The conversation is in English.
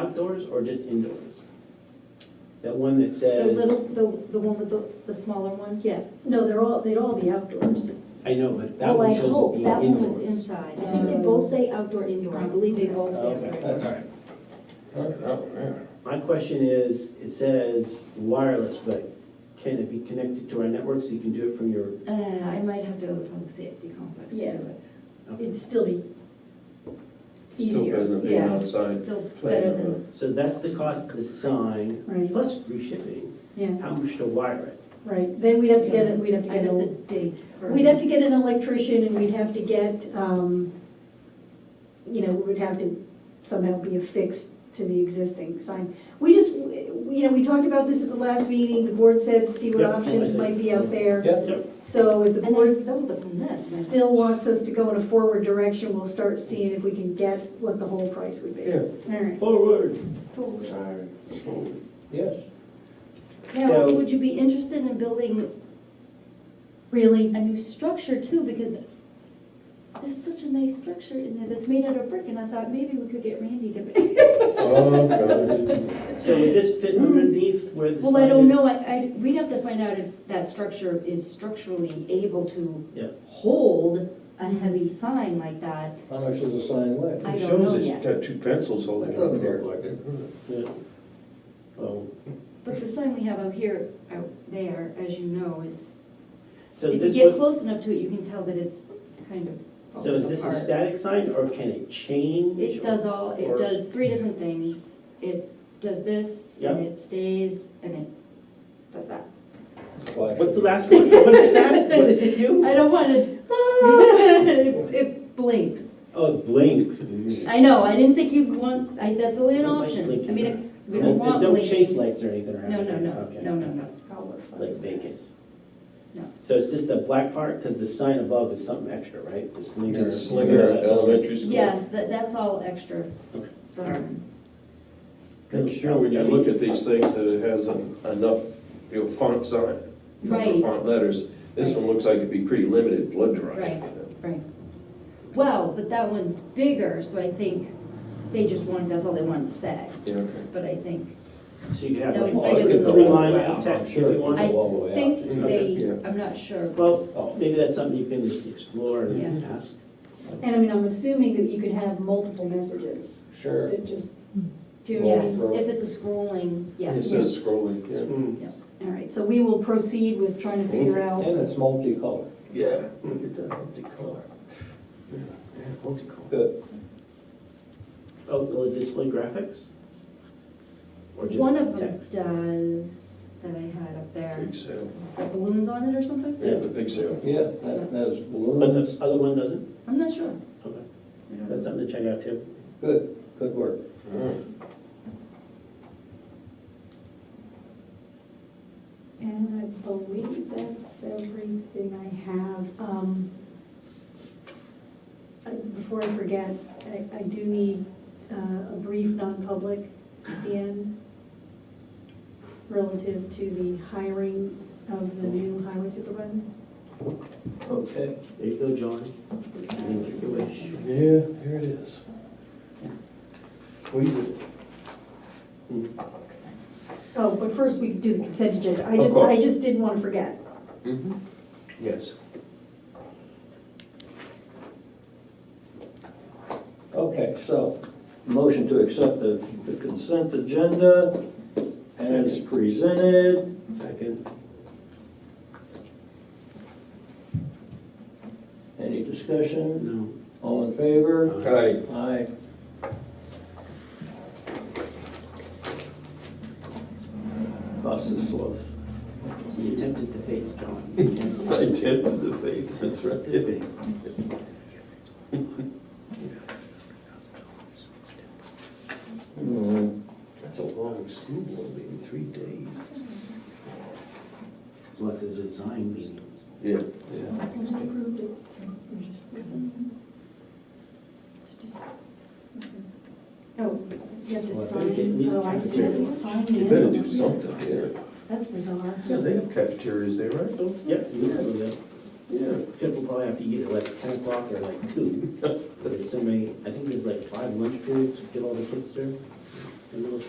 outdoors or just indoors? That one that The little, says, the, the one with the, the smaller one, yeah. No, they're all, they'd all be outdoors. I know, but that Well, Oh, I one shows hope it being That one was indoors. inside. I think they both say outdoor, indoor. I believe they both Oh, say okay. outdoor. indoor. My question is, it says wireless, but can it be connected to our network so you can do it from your, Uh, I might have to go to the public safety complex to do Yeah. it. It'd still be Still better easier. than being Yeah, it's outside. Still playing better on than, so that's the cost of the sign, Right. plus free shipping, Yeah, how much to wire it? right. Then we'd have to get, it. we'd have to I get, got the a- date. for- we'd have to get an electrician and we'd have to get, um, you know, we would have to somehow be affixed to the existing sign. We just, you know, we talked about this at the last meeting. The board said, see what Yeah, options I see. might be out there. Yep. So if the And they board stole it from this. still wants us to go in a forward direction, we'll start seeing if we can get what the whole price would be. Yeah. All right. Forward. Yes. Now, So- would you be interested in building Really? a new structure too? Because there's such a nice structure in there that's made out of brick and I thought maybe we could get Randy to. Oh, God. So would this fit underneath where the sign is? Mm. Well, I don't know. I, I, we'd have to find out if that structure is structurally able to Yeah. hold a heavy sign like that. How much does a sign weigh? I It don't know shows it's yet. got two pencils holding it up there. like it. Yeah. Oh, But the sign we have out here, out there, as you know, is, so if you this get was, close enough to it, you can tell that it's kind of so is falling this a apart. static sign or can it change? It does all, or- it does three different things. It does this, Yeah. and it stays, and it does that. What's the last one? What is that? What does it do? I don't want to, it it blinks. Oh, it blinks. I know, I didn't think you'd want, I, that's only an Don't like option. I blinking. mean, we There- don't want. There's blinking. no chase lights or anything around No, no, it? no, Okay. no, no, no. It's like Vegas. No. So it's just the black part, because the sign above is something extra, right? The slinger. The Slinger at elementary school. Yes, that, that's all extra. Okay. Um, Make sure when you look at these things that it has en- enough, you know, font sign. enough Right. Font letters. This one looks like it'd be pretty limited blood drawing. Right. you know. Right. Well, but that one's bigger, so I think they just wanted, that's all they wanted to say. Yeah, okay. But I think, So you have That like was bigger three than the lines wall. of text if you want. I all the way out. think Okay, they, yeah. I'm not sure. Well, maybe that's something you can just explore and Yeah. ask. And I mean, I'm assuming that you could have multiple messages Sure. that just, do you know what I Yeah, mean? if it's a scrolling, yeah. It says scrolling, yeah. Mm. All right, so we will proceed with trying to figure out, And it's multicolored. Yeah. Look at that, multicolor. Yeah, yeah, multicolor. Good. Oh, will it display graphics? Or One of just them text? does, that I had up there, Big sale. the balloons on it or something? Yeah, the big sale. Yeah, that, that's But balloons. the other one doesn't? I'm not sure. Okay, I don't know. that's something to check out too. Good, good work. All right. and I believe that's everything I have. Um, I- Before I forget, I, I do need uh, a brief non-public at the end relative to the hiring of the new highway supervisor. Okay. There you go, John. Make your wish. Yeah, here it is. Squeeze it. Oh, but first we do the consent agenda. I Of just, I course. just didn't want to forget. Mm-hmm. Yes. Okay, so, motion to accept the, the consent agenda as presented. Second. Any discussion? No. All in favor? Hi. Aye. Process slow. So you tempted the face, John. I did with the faith, that's right. Hmm. That's a long school board meeting, three days. What's a design meeting? Yeah. Oh, you have to Well, I sign, think it needs oh, I see, you have to cafeteria. sign You better the do something, yeah. That's bizarre. Yeah, they have cafeterias there, right? Yep, you can still do that. Yeah. Except we'll probably have to eat at like ten o'clock or like two. There's so many, I think there's like five lunch periods, to get all the kids through.